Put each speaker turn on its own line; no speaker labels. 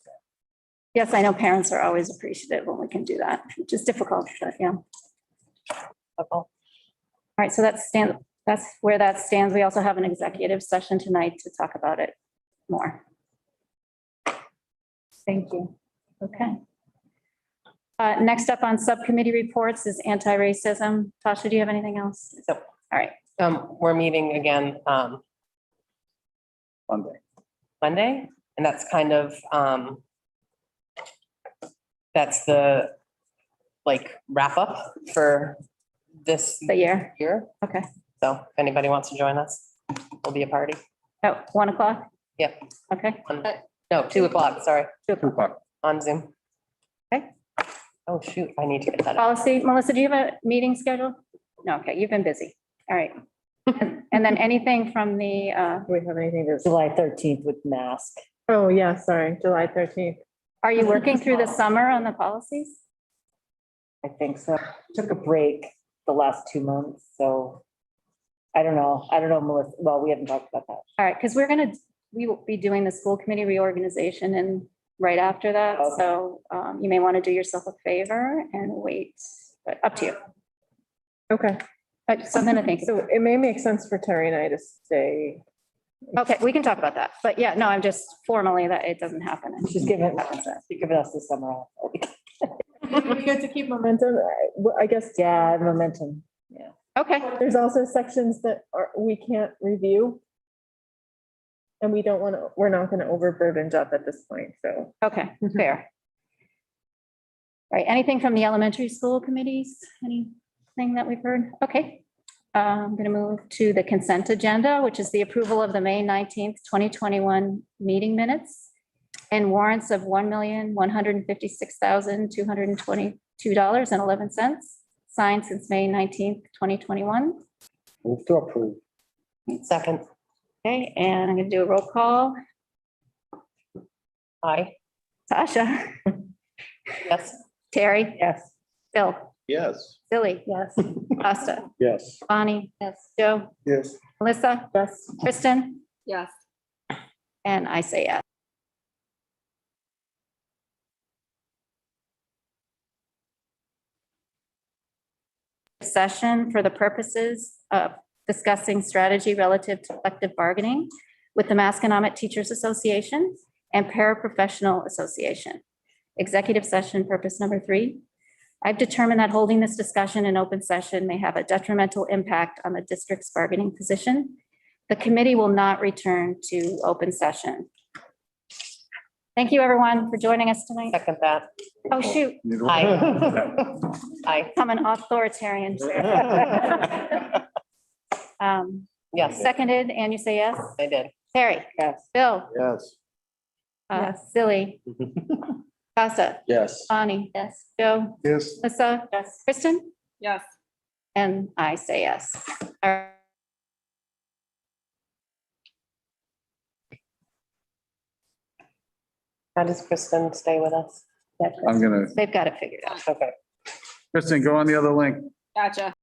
Yes, I know parents are always appreciative when we can do that, which is difficult, but yeah. All right, so that's stand, that's where that stands. We also have an executive session tonight to talk about it more. Thank you. Okay. Uh, next up on subcommittee reports is anti-racism. Tasha, do you have anything else?
So-
All right,
Um, we're meeting again, um,
Monday.
Monday, and that's kind of, um, that's the, like, wrap up for this
the year
year.
Okay.
So if anybody wants to join us, we'll be a party.
at one o'clock?
Yep.
Okay.
on- No, two o'clock, sorry,
two o'clock.
on Zoom. Okay. Oh, shoot, I need to get that. up.
Policy, Melissa, do you have a meeting scheduled? No, okay, you've been busy. All right. And and then anything from the, uh,
Do we have anything to?
July thirteenth with mask.
Oh, yeah, sorry, July thirteenth.
are you working through the summer on the policies?
I think so. Took a break the last two months, so I don't know. I don't know, Melissa. Well, we haven't talked about that.
All right, because we're gonna, we will be doing the school committee reorganization and right after that,
Okay.
so um, you may want to do yourself a favor and wait, but up to you.
Okay,
But Something to think.
so it may make sense for Terry and I to stay.
Okay, we can talk about that, but yeah, no, I'm just formally that it doesn't happen.
She's giving, she's giving us the summer off.
We get to keep momentum, I- well, I guess.
Yeah, momentum.
Okay,
There's also sections that are, we can't review. And we don't want to, we're not going to overburden Jeff at this point, so.
okay, fair. All right, anything from the elementary school committees? Anything that we've heard? Okay. Uh, I'm going to move to the consent agenda, which is the approval of the May 19th, 2021 meeting minutes and warrants of $1,156,222.11, signed since May 19th, 2021.
Move to approve.
Second,
Okay, and I'm going to do a roll call.
aye,
Tasha,
yes,
Terry,
Yes.
Bill,
Yes.
Billy. Yes. Costa,
Yes.
Bonnie. Yes. Joe.
Yes.
Melissa?
Yes.
Kristen? Yes. And I say yes. Session for the purposes of discussing strategy relative to collective bargaining with the Masconomet Teachers Association and Paraprofessional Association. Executive session purpose number three, I've determined that holding this discussion in open session may have a detrimental impact on the district's bargaining position. The committee will not return to open session. Thank you, everyone, for joining us tonight.
second that,
Oh, shoot,
Aye. aye,
I'm an authoritarian. Um,
yes,
Seconded, and you say yes?
I did.
Terry?
Yes.
Bill?
Yes.
Uh, Silly? Costa?
Yes.
Bonnie? Yes. Joe?
Yes.
Melissa? Yes. Kristen?
Yes.
And I say yes. All right.
How does Kristen stay with us?
I'm gonna,
They've got it figured out.
Okay.
Kristen, go on the other link.